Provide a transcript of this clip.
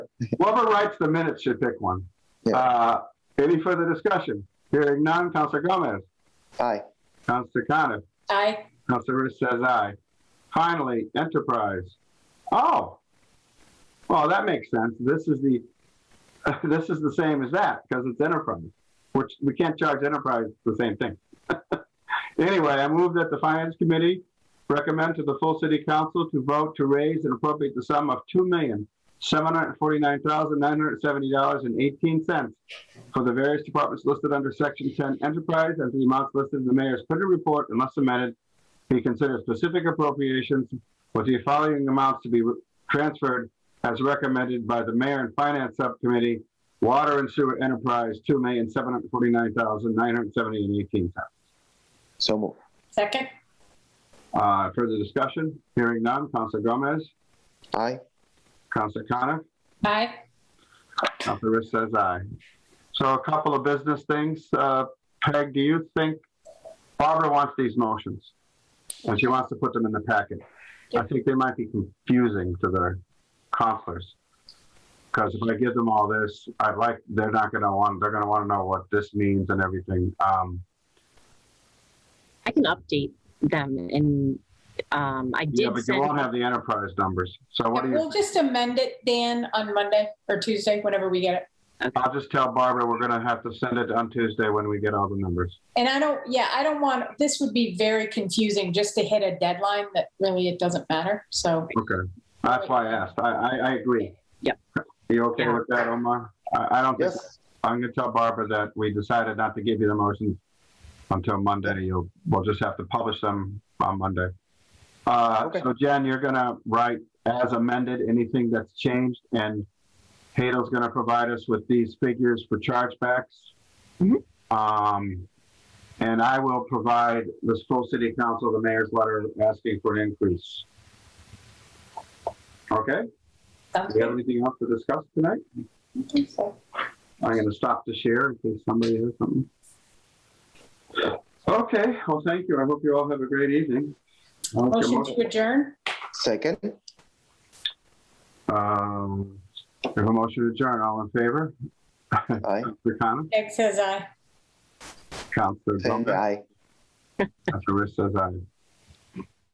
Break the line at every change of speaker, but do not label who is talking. Whoever writes the minutes should pick one. Uh, Any further discussion? Hearing none, Counselor Gomez,
Aye.
Counselor Coniff,
Aye.
Counselor Rist says aye. Finally, Enterprise. Oh, well, that makes sense. This is the, this is the same as that because it's Enterprise, which we can't charge Enterprise the same thing. Anyway, I move that the Finance Committee recommend to the full City Council to vote to raise and appropriate the sum of two million, seven hundred forty-nine thousand, nine hundred seventy dollars and eighteen cents for the various departments listed under Section 10 Enterprise and the amounts listed in the mayor's printed report unless amended. He considers specific appropriations with the following amounts to be re- transferred as recommended by the mayor and finance subcommittee, water and sewer enterprise, two million, seven hundred forty-nine thousand, nine hundred seventy and eighteen cents.
So moved.
Second?
Uh, further discussion? Hearing none. Councilor Gomez,
Aye.
Councilor Coniff,
Aye.
Counselor Rist says aye. So a couple of business things. Uh, Peg, do you think Barbara wants these motions? And she wants to put them in the packet. I think they might be confusing to the counselors. Because if I give them all this, I'd like, they're not gonna want, they're gonna wanna know what this means and everything. Um,
I can update them and, um, I
yeah,
did
but you
send,
won't have the enterprise numbers. So what do you?
We'll just amend it, Dan, on Monday or Tuesday, whenever we get it.
I'll just tell Barbara, we're gonna have to send it on Tuesday when we get all the numbers.
And I don't, yeah, I don't want, this would be very confusing just to hit a deadline that really it doesn't matter. So,
Okay, that's why I asked. I, I, I agree.
Yep.
You okay
Yeah.
with that, Omar? I, I don't think,
Yes.
I'm gonna tell Barbara that we decided not to give you the motions until Monday. You'll, we'll just have to publish them on Monday. Uh,
Okay.
so Jen, you're gonna write as amended, anything that's changed, and Hadel's gonna provide us with these figures for chargebacks.
Mhm.
Um, and I will provide this full city council, the mayor's letter asking for an increase. Okay,
sounds
do we have
good.
anything else to discuss tonight?
So,
I'm gonna stop to share in case somebody has something. Okay, well, thank you. I hope you all have a great evening. I'll make a
Motion to adjourn?
Second.
Um, we have a motion to adjourn. All in favor?
Aye.
Counselor Coniff,
Peg says aye.
Counselor
And
Gomez,
aye.
Counselor Rist says aye.